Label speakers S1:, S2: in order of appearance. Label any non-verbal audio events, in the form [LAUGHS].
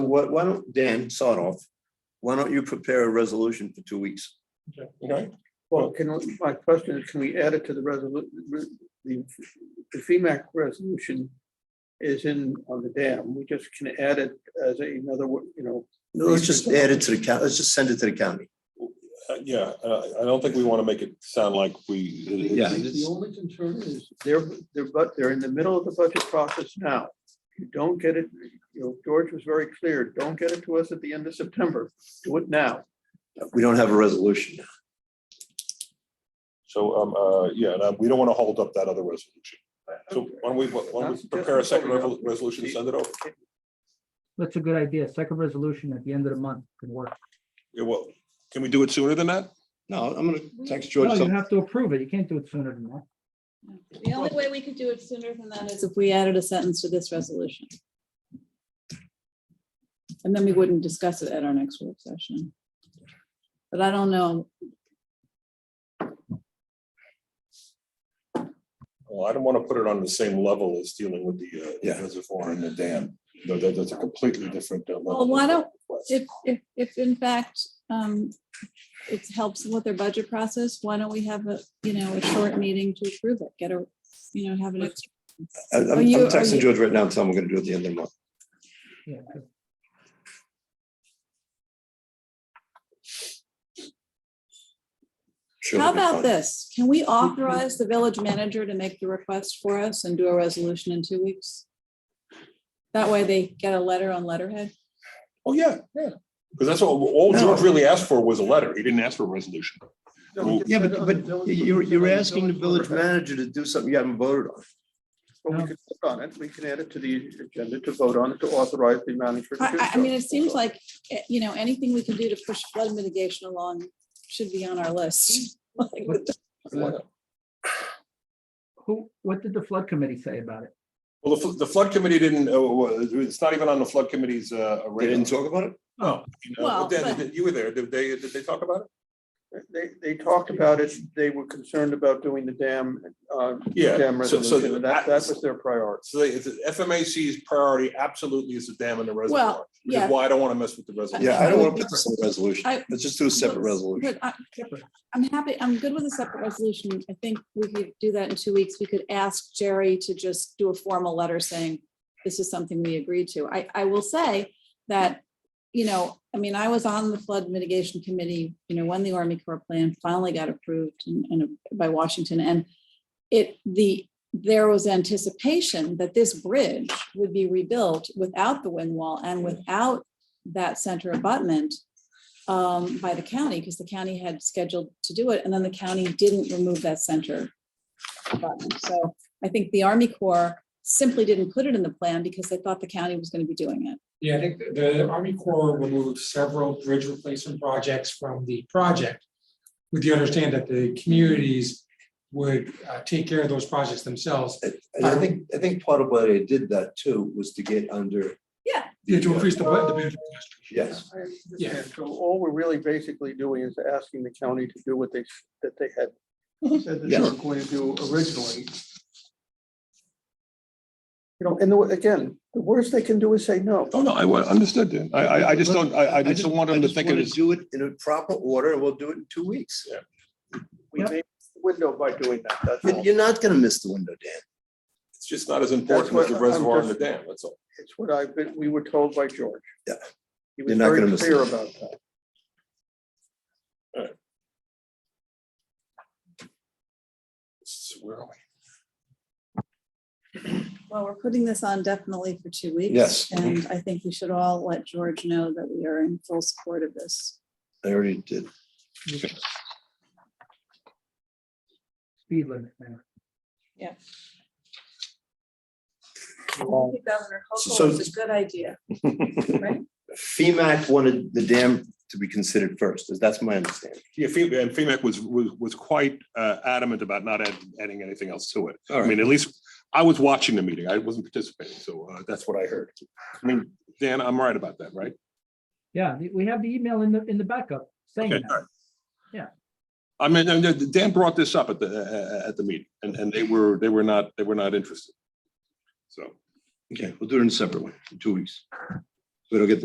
S1: why why don't, Dan Sotoff, why don't you prepare a resolution for two weeks?
S2: Okay.
S3: Well, can, we- my question is, can we add it to the resolution, the, the FEMAC resolution is in on the dam, we just can add it as a- another, wo- you know.
S1: No, Let's just add it to the county, let's just send it to the county.
S2: Uh, Yeah, uh, I don't think we want to make it sound like we. it-
S1: Yeah.
S2: it's-
S3: The only concern is they're, they're, but they're in the middle of the budget process now. You don't get it, you know, George was very clear, don't get it to us at the end of September, do it now.
S1: We don't have a resolution.
S2: So, um, uh, yeah, and, uh, we don't want to hold up that other resolution. So why don't we, why don't we prepare a second revol- resolution, and send it over?
S4: That's a good idea. Second resolution at the end of the month could work.
S2: Yeah, well, can we do it sooner than that?
S1: No, I'm gonna text
S4: No,
S1: George.
S4: you have to approve it. You can't do it sooner than that.
S5: The only way we could do it sooner than that is if we added a sentence to this resolution. And then we wouldn't discuss it at our next work session. But I don't know,
S2: Well, I don't want to put it on the same level as dealing with the, uh, the
S1: Yeah.
S2: reservoir and the dam. No, that, that's a completely different. uh, level
S5: Well, why
S2: of
S5: don't-
S2: request.
S5: if, if, if in fact, um, it helps with their budget process, why don't we have a, you know, a short meeting to approve it, get a, you know, have an extra.
S1: I'm
S5: Are
S1: I'm
S5: you- are
S1: texting
S5: you-
S1: George right now, and telling him we're gonna do it at the end of the month.
S4: Yeah. 'cause
S1: Sure,
S5: How
S1: that'd be
S5: about
S1: fine.
S5: this? Can we authorize the village manager to make the request for us and do a resolution in two weeks? That way they get a letter on letterhead.
S2: Oh, yeah, yeah. Because that's all, all
S1: No.
S2: George really asked for was a letter. He didn't ask for a resolution.
S1: Yeah, but, but you're, you're asking the village manager to do something you haven't voted on.
S3: But we
S4: No.
S3: can vote on it, we can add it to the agenda to vote on it, to authorize the manager. to
S5: I,
S3: do
S5: I- I
S3: so.
S5: mean, it seems like, eh, you know, anything we can do to push flood mitigation along should be on our list. [LAUGHS] Like,
S4: what-
S2: Yeah.
S4: Who, what did the flood committee say about it?
S2: Well, the, fl- the flood committee didn't, uh, wa- it's not even on the flood committee's, uh,
S1: They
S2: radar.
S1: didn't talk about it?
S2: No. you know,
S5: Well,
S2: but then,
S5: but-
S2: you were there. Did they, did they talk about it?
S3: They, they talked about it, they were concerned about doing the dam, uh, dam
S2: Yeah. So, so
S3: resolution, and that, that
S2: that-
S3: was their priority.
S2: so they- it's FMAC's priority absolutely is the dam and the reservoir.
S5: Well,
S2: Which is
S5: yeah.
S2: why I don't want to mess with the reservoir.
S1: Yeah, I don't wanna put this in a resolution.
S5: I-
S1: Let's just do a separate resolution.
S5: But I- I'm happy, I'm good with a separate resolution. I think we could do that in two weeks. We could ask Jerry to just do a formal letter saying this is something we agreed to. I, I will say that, you know, I mean, I was on the flood mitigation committee, you know, when the Army Corps plan finally got approved and, and by Washington and it, the, there was anticipation that this bridge would be rebuilt without the wind wall and without that center abutment um, by the county, because the county had scheduled to do it, and then the county didn't remove that center. button. So I think the Army Corps simply didn't put it in the plan because they thought the county was gonna be doing it.
S6: Yeah, I think the- the Army Corps removed several bridge replacement projects from the project with the understanding that the communities would uh, take care of those projects themselves.
S1: And I think, I think part of why they did that too was to get under.
S5: Yeah.
S1: the,
S6: Yeah, to
S1: uh,
S6: increase the bu- the bid.
S1: Yes,
S6: Yeah.
S3: So all we're really basically doing is asking the county to do what they, s- that they had said that they were going to do originally. You know, and the wa- again, the worst they can do is say no.
S2: Oh, no, I wa- understood, Dan. I, I, I just don't, I, I just don't want them to
S1: just
S2: think it
S1: wanna
S2: is.
S1: Do it in a proper order, and we'll do it in two weeks.
S3: We
S4: Yep.
S3: made the window by doing that, that's
S1: You-
S3: all.
S1: You're not gonna miss the window, Dan.
S2: It's just not as important as the
S3: what I'm
S2: reservoir and the
S3: just-
S2: dam, that's all.
S3: It's what I've been, we were told by George.
S1: Yeah.
S3: He
S1: You're
S3: was
S1: not gonna
S3: very
S1: miss
S3: clear
S1: it.
S3: about that.
S2: It's- Where are we?
S5: Well, we're putting this on definitely for two weeks.
S1: Yes.
S5: And I think we should all let George know that we are in full support of this.
S1: I already did.
S4: Speed limit. man.
S5: Governor
S1: Hochul is
S5: a good idea.
S1: FEMAC wanted the dam to be considered first, that's my understanding.
S2: Yeah, Fe- and FEMAC was, was, was quite uh, adamant about not add- adding anything else to it.
S1: All
S2: I mean, at least I was watching the meeting. I wasn't participating, so uh, that's what I heard. I mean, Dan, I'm right about that, right?
S4: Yeah, we- we have the email in the, in the backup saying
S2: Okay, all
S4: that.
S2: right. I mean, and then Dan brought this up at the, uh, uh, at the meeting and, and they were, they were not, they were not interested. So.
S1: Okay, we'll do it in a separate one, in two weeks. We don't get